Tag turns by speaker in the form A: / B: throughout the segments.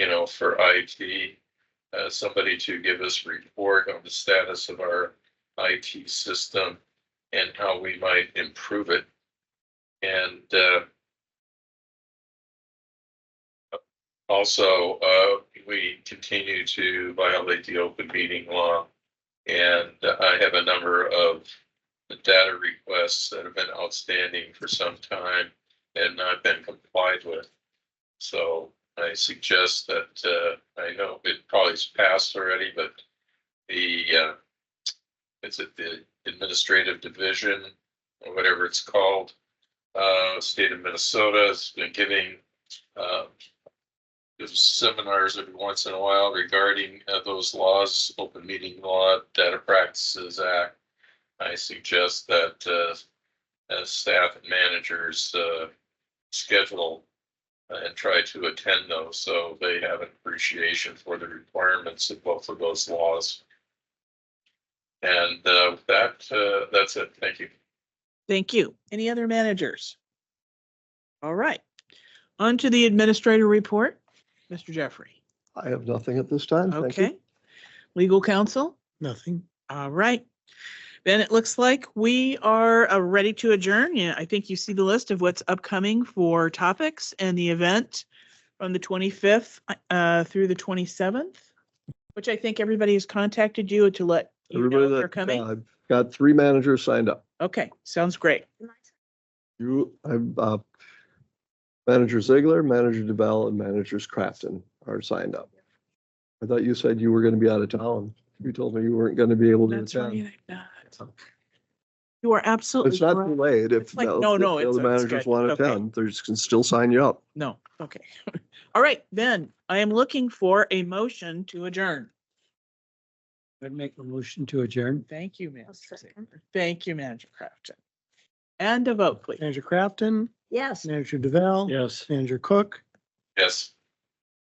A: know, for IT. Uh, somebody to give us report on the status of our IT system and how we might improve it. And, uh, also, uh, we continue to violate the open meeting law. And I have a number of data requests that have been outstanding for some time and not been complied with. So I suggest that, uh, I know it probably's passed already, but the, uh, is it the administrative division or whatever it's called? Uh, state of Minnesota has been giving, uh, there's seminars every once in a while regarding uh, those laws, open meeting law, data practices act. I suggest that, uh, as staff and managers, uh, schedule and try to attend those, so they have an appreciation for the requirements of both of those laws. And uh, that, uh, that's it. Thank you.
B: Thank you. Any other managers? All right. On to the administrator report, Mr. Jeffrey.
C: I have nothing at this time. Thank you.
B: Okay. Legal counsel?
D: Nothing.
B: All right. Then it looks like we are uh, ready to adjourn. Yeah, I think you see the list of what's upcoming for topics and the event from the 25th uh, through the 27th, which I think everybody has contacted you to let you know
C: Everybody
B: if they're
C: that,
B: coming.
C: uh, got three managers signed up.
B: Okay, sounds great.
C: You, I, uh, Manager Ziegler, Manager DeBell and Managers Crafton are signed up. I thought you said you were going to be out of town. You told me you weren't going to be able to
B: That's
C: attend.
B: right. I'm not. You are absolutely
C: It's not
B: correct.
C: too late. If
B: It's like,
C: the
B: no,
C: if
B: no,
C: the
B: it's-
C: other
B: it's
C: managers
B: good.
C: want to
B: Okay.
C: attend, they can still sign you up.
B: No, okay. All right, then I am looking for a motion to adjourn.
D: I'd make a motion to adjourn.
B: Thank you, Manager. Ziegler. Thank you, Manager Crafton. And a vote, please.
E: Manager Crafton,
F: Yes.
E: Manager DeVal.
D: Yes.
E: Manager Cook,
A: Yes.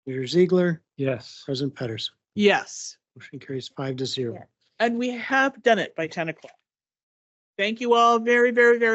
E: Manager Ziegler,
D: Yes.
E: President Pedersen.
B: Yes,
E: Motion carries five to zero.
F: Yeah.
B: and we have done it by ten o'clock. Thank you all very, very, very.